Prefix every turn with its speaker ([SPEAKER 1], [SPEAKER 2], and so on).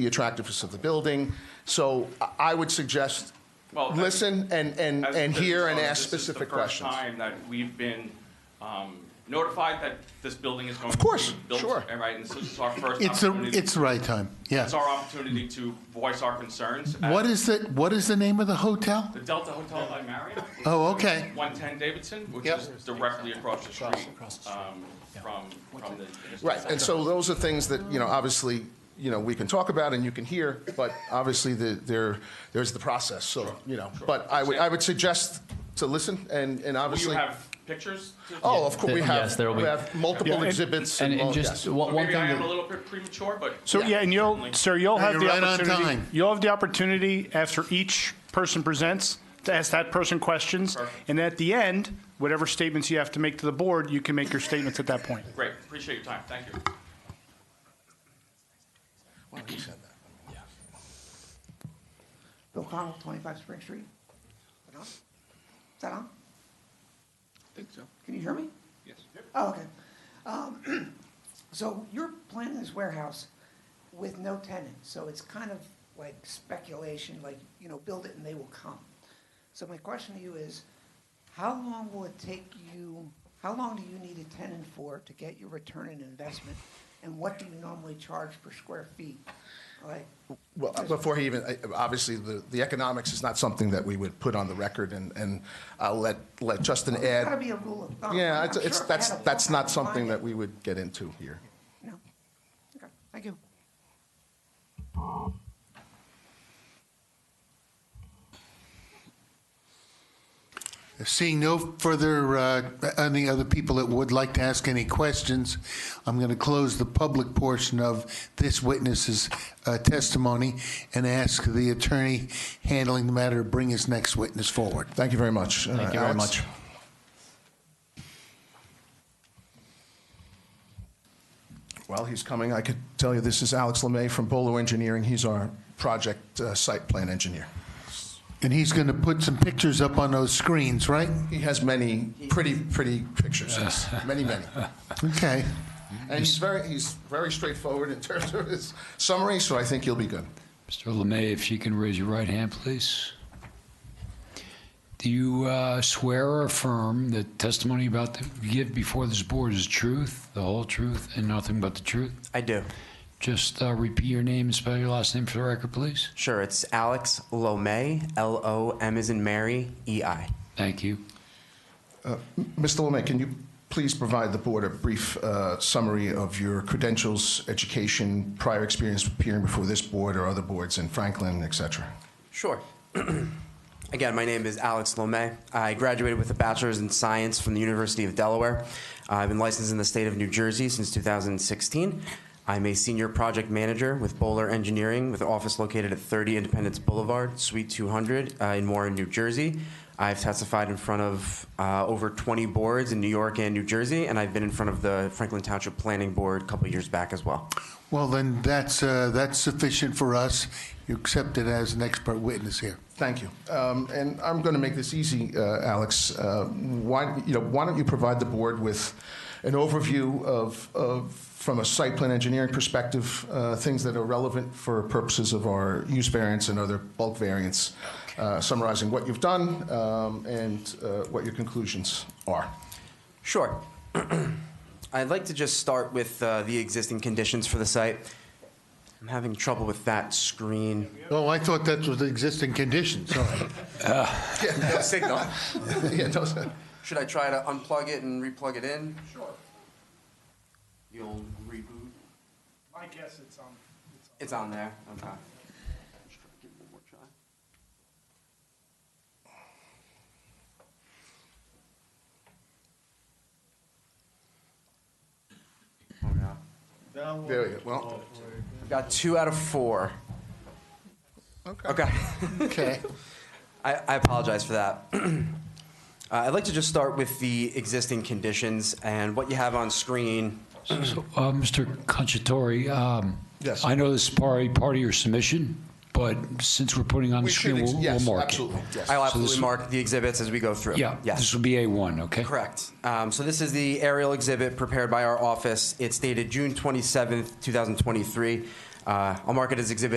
[SPEAKER 1] the attractiveness of the building. So I- I would suggest,
[SPEAKER 2] Well, I-
[SPEAKER 1] listen and, and,
[SPEAKER 2] As a
[SPEAKER 1] and
[SPEAKER 2] business
[SPEAKER 1] hear and
[SPEAKER 2] owner,
[SPEAKER 1] ask specific questions.
[SPEAKER 2] This is the first time that we've been um, notified that this building is going to be built.
[SPEAKER 1] course, sure.
[SPEAKER 2] and Right, and this is our first
[SPEAKER 3] It's a,
[SPEAKER 2] opportunity.
[SPEAKER 3] it's right time, yeah.
[SPEAKER 2] It's our opportunity to voice our concerns. at
[SPEAKER 3] What is it, what is the name of the hotel?
[SPEAKER 2] The Delta Hotel by Marriott.
[SPEAKER 3] Oh, okay.
[SPEAKER 2] 110 Davidson, which
[SPEAKER 3] Yep.
[SPEAKER 2] is directly across the street
[SPEAKER 3] Across the street,
[SPEAKER 2] um, from, from the.
[SPEAKER 1] Right, and so those are things that, you know, obviously, you know, we can talk about and you can hear, but obviously the, there, there's the process, so, you know. But I would, I would suggest to listen and, and
[SPEAKER 2] Will you
[SPEAKER 1] obviously.
[SPEAKER 2] have pictures? to-
[SPEAKER 1] Oh, of course, we
[SPEAKER 4] Yes,
[SPEAKER 1] have,
[SPEAKER 4] there will
[SPEAKER 1] we
[SPEAKER 4] be.
[SPEAKER 1] have multiple exhibits
[SPEAKER 4] And
[SPEAKER 1] and,
[SPEAKER 4] and
[SPEAKER 1] all-
[SPEAKER 4] just
[SPEAKER 1] yes.
[SPEAKER 4] one
[SPEAKER 2] So
[SPEAKER 4] one
[SPEAKER 2] Maybe
[SPEAKER 4] thing,
[SPEAKER 2] I am a
[SPEAKER 4] that-
[SPEAKER 2] little bit premature, but.
[SPEAKER 5] So, yeah, and you'll, sir, you'll
[SPEAKER 3] No,
[SPEAKER 5] have
[SPEAKER 3] you're
[SPEAKER 5] the
[SPEAKER 3] right on
[SPEAKER 5] opportunity,
[SPEAKER 3] time.
[SPEAKER 5] you'll have the opportunity after each person presents to ask that person questions.
[SPEAKER 2] Perfect.
[SPEAKER 5] And at the end, whatever statements you have to make to the board, you can make your statements at that point.
[SPEAKER 2] Great, appreciate your time, thank you.
[SPEAKER 1] Why don't you send that?
[SPEAKER 6] Bill Connell, 25 Spring Street. Is that on? Is that on?
[SPEAKER 7] think so,
[SPEAKER 6] Can you hear me?
[SPEAKER 7] yes.
[SPEAKER 6] Oh, okay. Um, So you're planning this warehouse with no tenant, so it's kind of like speculation, like, you know, build it and they will come. So my question to you is, how long will it take you, how long do you need a tenant for to get your return on investment? And what do you normally charge per square feet? Like,
[SPEAKER 1] Well, before he even, I- obviously, the, the economics is not something that we would put on the record, and, and I'll let, let Justin
[SPEAKER 6] it's gotta
[SPEAKER 1] add.
[SPEAKER 6] be a rule of thumb.
[SPEAKER 1] Yeah,
[SPEAKER 6] I'm
[SPEAKER 1] it's,
[SPEAKER 6] sure
[SPEAKER 1] it's,
[SPEAKER 6] if I
[SPEAKER 1] that's,
[SPEAKER 6] had a
[SPEAKER 1] that's
[SPEAKER 6] full-time
[SPEAKER 1] not something
[SPEAKER 6] client-
[SPEAKER 1] that we would get into here.
[SPEAKER 6] No. Okay, thank you.
[SPEAKER 3] Seeing no further, uh, any other people that would like to ask any questions, I'm going to close the public portion of this witness's uh, testimony and ask the attorney handling the matter to bring his next witness forward.
[SPEAKER 1] Thank you very much. Uh,
[SPEAKER 4] thank you very much.
[SPEAKER 1] While he's coming, I could tell you this is Alex Lemay from Bolo Engineering. He's our project uh, site plan engineer.
[SPEAKER 3] And he's going to put some pictures up on those screens, right?
[SPEAKER 1] He has many pretty, pretty pictures, yes. many, many.
[SPEAKER 3] Okay.
[SPEAKER 1] And he's very, he's very straightforward in terms of his summary, so I think you'll be good.
[SPEAKER 7] Mr. Lemay, if you can raise your right hand, please. Do you uh, swear or affirm that testimony about the, you give before this board is truth, the whole truth, and nothing but the truth?
[SPEAKER 8] I do.
[SPEAKER 7] Just uh, repeat your name and spell your last name for the record, please.
[SPEAKER 8] Sure, it's Alex Lomé, L O M is in Mary, E I.
[SPEAKER 7] Thank you.
[SPEAKER 1] Mr. Lemay, can you please provide the board a brief uh, summary of your credentials, education, prior experience appearing before this board or other boards in Franklin, et cetera?
[SPEAKER 8] Sure. Again, my name is Alex Lomé. I graduated with a bachelor's in science from the University of Delaware. Uh, I've been licensed in the state of New Jersey since 2016. I'm a senior project manager with Bowler Engineering with an office located at 30 Independence Boulevard, Suite 200 uh, in Warren, New Jersey. I've testified in front of uh, over 20 boards in New York and New Jersey, and I've been in front of the Franklin Township Planning Board a couple years back as well.
[SPEAKER 3] Well, then that's, uh, that's sufficient for us. You're accepted as an expert witness here.
[SPEAKER 1] Thank you. Um, And I'm going to make this easy, uh, Alex. Uh, Why, you know, why don't you provide the board with an overview of, of, from a site plan engineering perspective, uh, things that are relevant for purposes of our use variance and other bulk variance, uh, summarizing what you've done um, and uh, what your conclusions are.
[SPEAKER 8] Sure. I'd like to just start with uh, the existing conditions for the site. I'm having trouble with that screen.
[SPEAKER 3] Oh, I thought that was the existing condition, sorry.
[SPEAKER 8] No signal.
[SPEAKER 1] Yeah, no, sir.
[SPEAKER 8] Should I try to unplug it and replug it in? Sure. You'll reboot.
[SPEAKER 5] My guess it's on.
[SPEAKER 8] It's on there. Okay. Oh no.
[SPEAKER 1] There we go. Well,
[SPEAKER 8] I've got two out of four. Okay.
[SPEAKER 3] Okay.
[SPEAKER 8] I, I apologize for that. uh, I'd like to just start with the existing conditions and what you have on screen.
[SPEAKER 7] So, uh, Mr. Conchatori, um,
[SPEAKER 1] Yes.
[SPEAKER 7] I know this is part, part of your submission, but since we're putting on
[SPEAKER 1] we
[SPEAKER 7] the
[SPEAKER 1] should,
[SPEAKER 7] screen,
[SPEAKER 1] ex-
[SPEAKER 7] we'll, we'll
[SPEAKER 1] yes,
[SPEAKER 7] mark it.
[SPEAKER 1] absolutely, yes.
[SPEAKER 8] I'll
[SPEAKER 7] So this-
[SPEAKER 8] absolutely mark the exhibits as we go through.
[SPEAKER 7] Yeah, this
[SPEAKER 8] Yes.
[SPEAKER 7] will be A1, okay?
[SPEAKER 8] Correct. Um, so this is the aerial exhibit prepared by our office. It's dated June 27th, 2023. Uh, Uh, I'll mark it as Exhibit